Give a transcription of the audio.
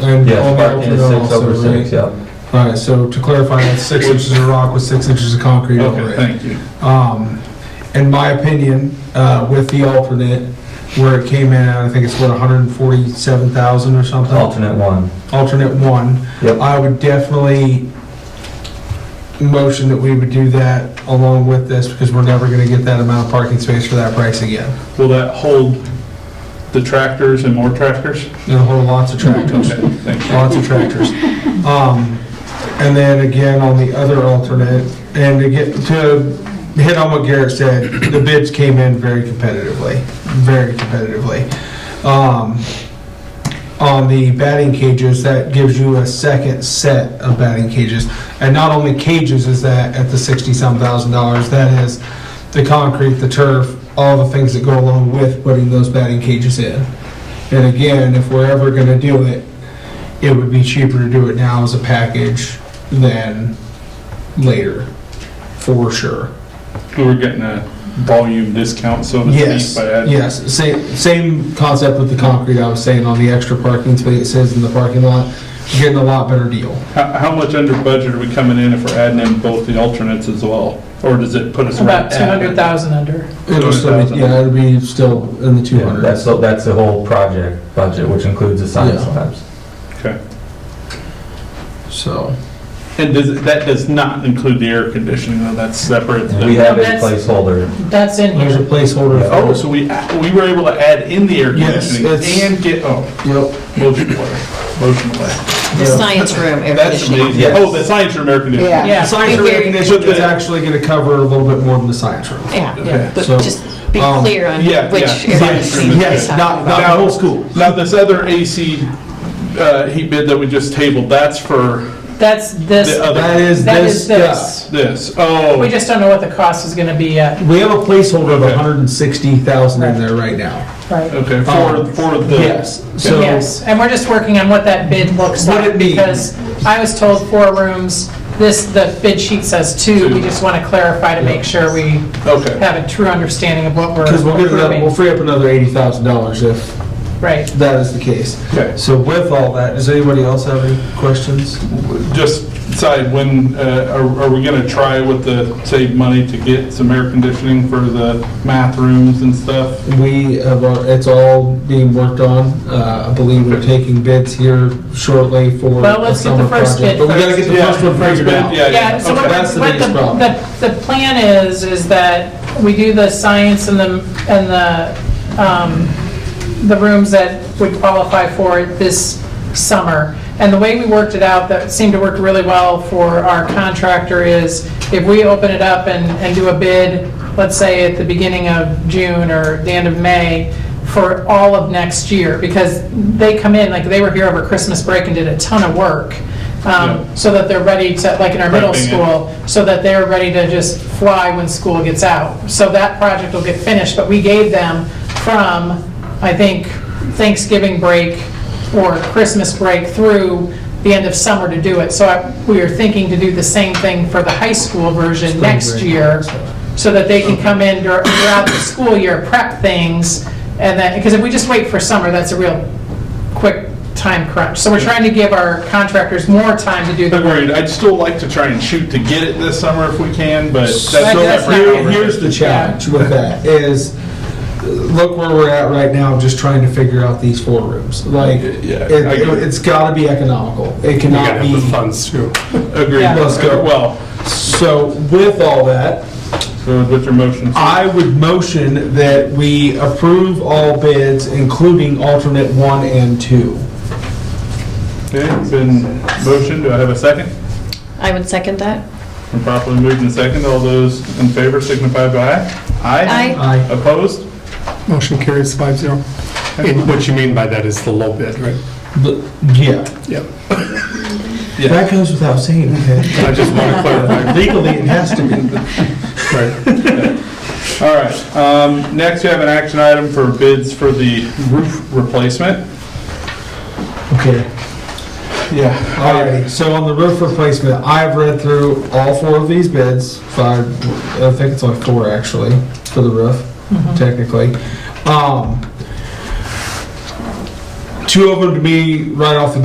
And Yeah, all parking metal is drill six over also, six, right? yeah. All right, so to clarify, that's six inches of rock with six inches of concrete over Okay, it. thank you. Um, in my opinion, uh, with the alternate, where it came in, at, I think it's what, hundred and forty-seven thousand or something? Alternate one. Alternate one. Yep. I would definitely motion that we would do that along with this, because we're never gonna get that amount of parking space for that price again. Will that hold the tractors and more tractors? And a whole lots of tractors, Okay, thank you. lots of tractors. Um, and then again, on the other alternate, and to get, to hit on what Garrett said, the bids came in very competitively, very competitively. Um, on the batting cages, that gives you a second set of batting cages. And not only cages is that at the sixty-some thousand dollars, that is the concrete, the turf, all the things that go along with putting those batting cages in. And again, if we're ever gonna do it, it would be cheaper to do it now as a package than later, for sure. We were getting a volume discount, so to Yes, speak, by adding. yes, same, same concept with the concrete I was saying on the extra parking spaces in the parking lot, you're getting a lot better deal. How, how much under budget are we coming in if we're adding in both the alternates as well? Or does it put us right About two at? hundred thousand under. It'll still, be- yeah, it'll be still in the two Yeah, hundreds. That's, the- that's the whole project budget, which includes the sign Yeah. slabs. so. And does, it- that does not include the air conditioning, though, that's separate. We have a That's- placeholder. That's in There's a here. placeholder. for Oh, so we, we were able to add in the air Yes, conditioning it's- and get, oh, Yep. motion away, motion away. The Yeah. science room air That's conditioning. amazing. Yes. Oh, the science room air conditioning. Yeah. The Science room Big area recognition is conditioning. actually gonna cover a little bit more than the science room. Okay. Yeah, but So, just be um, clear on yeah, which yeah. area Science room you're Yes, talking not, about. not the whole school. Now, this other AC uh, heat bid that we just tabled, that's for That's this, The other- That uh, is that is this, yeah. this. this. Oh, We just don't know what the cost is gonna be yet. We have a placeholder of Okay. 160,000 in there right now. Right. okay, for, Um, for the. Yes, so, Yes, and we're just working on what that bid looks What like. it means. Because I was told four rooms, this, the bid sheet says two. We just wanna clarify to make sure we Okay, have a true understanding of what we're because we'll get another, we'll approving. free up another $80,000 if Right. that is the case. okay. So with all that, does anybody else have any questions? Just decide when, uh, are are we going to try with the save money to get some air conditioning for the math rooms and stuff? We have, our- it's all being worked on. Uh, I believe we're taking bids here shortly for Well, a let's get the summer first project. bid But we gotta first. get the first one First figured bid, out. Yeah, Yeah, yeah. so what okay. That's the what the, biggest problem. the, the plan is, is that we do the science and the, and the, um, the rooms that would qualify for it this summer. And the way we worked it out, that seemed to work really well for our contractor is if we open it up and, and do a bid, let's say at the beginning of June or the end of May, for all of next year, because they come in, like, they were here over Christmas break and did a ton of work. Um, Yeah. so that they're ready to, like in our middle Prepping it. school, so that they're ready to just fly when school gets out. So that project will get finished, but we gave them from, I think, Thanksgiving break or Christmas break through the end of summer to do it. So I- we are thinking to do the same thing for the high school version Spring next break. year, so that they can come in dur- throughout the school year, prep things, and then, because if we just wait for summer, that's a real quick time crunch. So we're trying to give our contractors more time to do the Agreed. I'd still like to try and shoot to get it this summer if we can, but that's. So that's not- here- here's the challenge with that is, uh, look where we're at right now, just trying to figure out these four rooms. Like, it- Yeah, I get it. it's gotta be economical. It cannot be. funds too. Agreed. Yeah. Let's go. Well, So with all that, so what's your motion? I would motion that we approve all bids, including alternate one and two. Okay, it's been motion. Do I have a second? I would second that. Been properly moved and second. All those in favor signify by aye. Aye. Aye. Opposed? Motion carries five zero. And what you mean by that is the low bid, right? The- Yeah, Yep. that goes without saying, okay? I just want to clarify. Legally, it has to be. Right. All right, um, next we have an action item for bids for the roof replacement. Okay. Yeah. Alrighty, so on the roof replacement, I've read through all four of these bids, five, I think it's only four actually, for the roof, technically. Um, Two of them to me, right off the